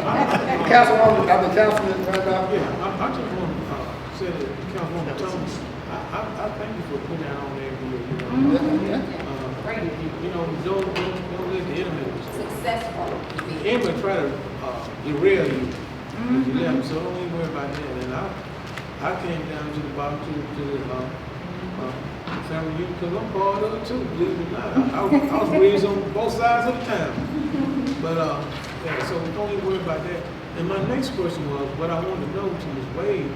Councilwoman, I'm a councilman right now. Yeah, I, I just want to, uh, say that Councilwoman Thomas, I, I, I thank you for putting that on there, you know. Mm-hmm. Yeah, Uh, you- you- You know, don't, don't, don't let the enemy, Successful. the enemy try to, uh, derail you. If you let Mm-hmm. them, so don't even worry about that. And I, I came down to the bottom to, to, the, uh, uh, family unit, cause I'm part of it too, believe it or not. I- I, was- I was raised on both sides of the town. But, uh, yeah, so don't even worry about that. And my next question was, what I wanted to know to Ms. Wade,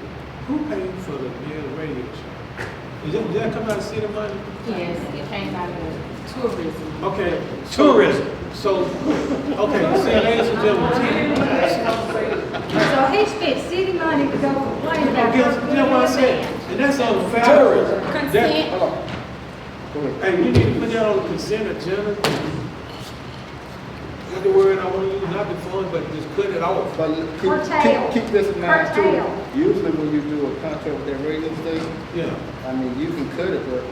who paid for the Bears radio show? Is that, did that come out of city money? Yes, it came out of tourism. Okay. Tourism. So, okay, see, ladies and gentlemen. So he spent city money to go complain about. Guess, you know what I said? And that's on fair. Tourism. That- Consent, hold on. Go ahead. Hey, you need to put that on consent agenda. Not the word I want to use, not the fun, but just cut it off. But keep, Curtail. keep, keep this in mind too. Curtail. Usually when you do a contract with that radio station, Yeah. I mean, you can cut it, but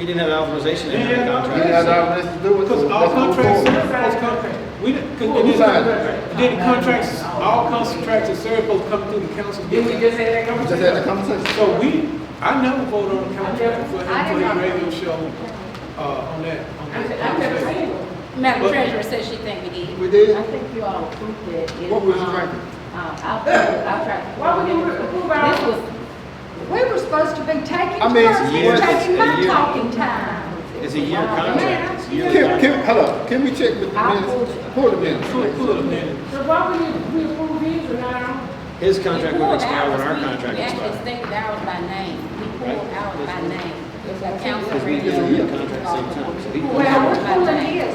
He didn't have authorization to Yeah, have a yeah, you contract. yeah. have all this to do with. it, Because so all let's move contracts, forward. most contracts, we didn't, cause Who it is, signed and then the contracts, all contracts and service both come through the council. did we just have that Just had a conversation? conversation. So we, I never voted on a contract for I did him for not. the radio show, uh, on that, on I'm, that. I'm just saying. Madam Treasurer says she think we did. We did? I think you all approved it. It, What was um, drinking? uh, I'll, I'll try. Why would you approve our- This was, We were supposed to be taking I mean, it's turns, we years, were it's taking a my year. talking time. It's a year contract. It's a year Can, contract. can, hold on, can we check with the I'll minutes? hold it. Pull the minutes. Pull, pull it a minute. So why would you, we approve these or not ours? His contract We would pulled expire when ours. our We- contract We actually expires. stated ours by name. We pulled Right. ours by name. The council Because we did radio. a contract at the same time. So he- Well, we're pulling his.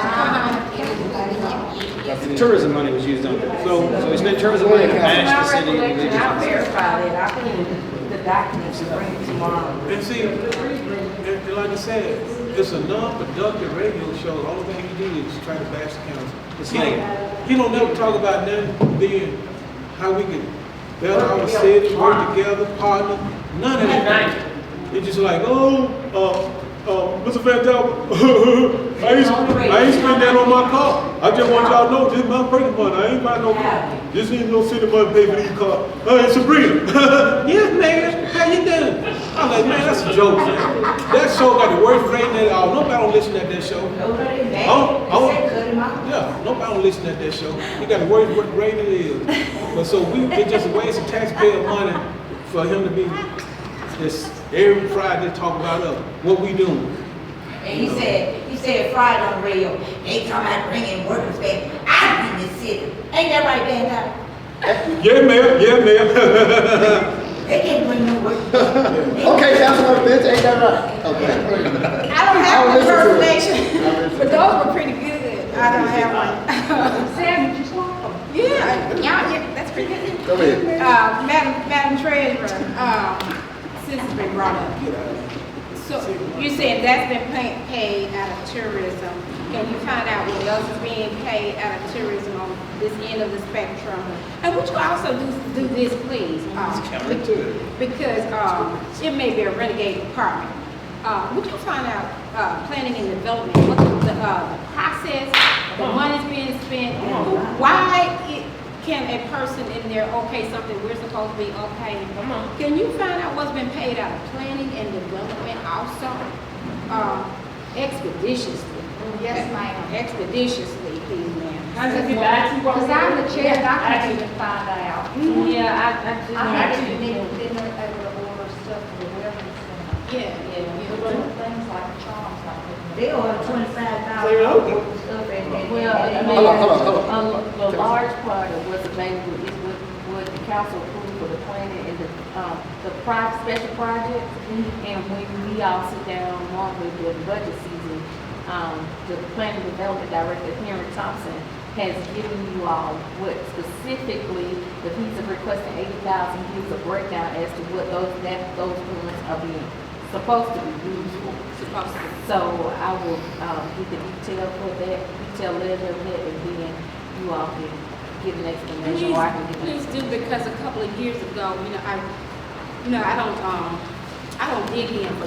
Ah, it was, yeah, yeah, yeah. The Tourism money was used on that. So, so he spent tourism money to bash the city. and religious institutions. that. I can, the documents will bring it tomorrow. And see, and, and like I said, it's a non-productive radio show, the only thing he did is try to bash the council. It's He like, don't, he don't never talk about nothing being, how we can better our city, work together, partner, none of that. It's just like, oh, uh, uh, Mr. Van Dam, I ain't, I ain't spend that on my car. I just want y'all to know, this is my personal money, I ain't buy no, this ain't no city money pay for these cars. Hey, Sabrina, yes, man, how you doing? I'm like, man, that's a joke, man. That show got the worst rating at all, nobody don't listen to that show. Nobody mad. Oh, oh. They said cut him out. Yeah, nobody don't listen at that show. You got to worry what grade it is. But so we, it just a waste of taxpayer money for him to be just every Friday talk about us, what we doing. And he said, he said Friday on the radio, they come out bringing workers back. I been in the city. Ain't that right, Dan? Dyer? Yeah, ma'am, yeah, ma'am. They can't bring no workers. back. Okay, Councilman Bench, ain't that right? Okay. I don't have I'll listen to an it. impersonation. But those were pretty good. I don't have one. Sandwiches, welcome. Yeah, y'all, yeah, that's pretty good. Go ahead. Uh, Madam, Madam Treasurer, um, since it's been brought up, so you said that's been pa- paid out of tourism. Can you find out what else is being paid out of tourism on this end of the spectrum? And would you also do, do this, please? uh, Because, um, it may be a renegade department. Uh, would you find out, uh, planning and development, what the, uh, the process, the money's being spent? Why it, can a person in there okay something we're supposed to be okay? Can you find out what's been paid out of planning and development also? Uh, expeditiously. Yes, ma'am. Expeditiously, please, ma'am. I just get back back to to you. what- Cause I'm the chair, and I I can even find out. Yeah, I, I I just. think it needed, then they were able to order stuff for the weapons and Yeah, yeah, yeah. little things like charms like that. They ordered twenty-five Clear out. thousand worth of stuff and then. Well, I mean, Hold on, hold on, hold on. a- a Um, large part of what's available is what, what the council approved for the planning and the, um, the pri special projects. Mm-hmm. And when we all sit down normally during budget season, um, the planning development director, Henry Thompson, has given you all what specifically, the piece of requesting eighty thousand, gives a breakdown as to what those, that, those funds are being, supposed to be used for. Supposed to. So I will, um, get the detail for that, detail letter of that, and then you all can give an explanation, Please, or I can give you. please do, because a couple of years ago, you know, I, you know, I don't, um, I don't dig in for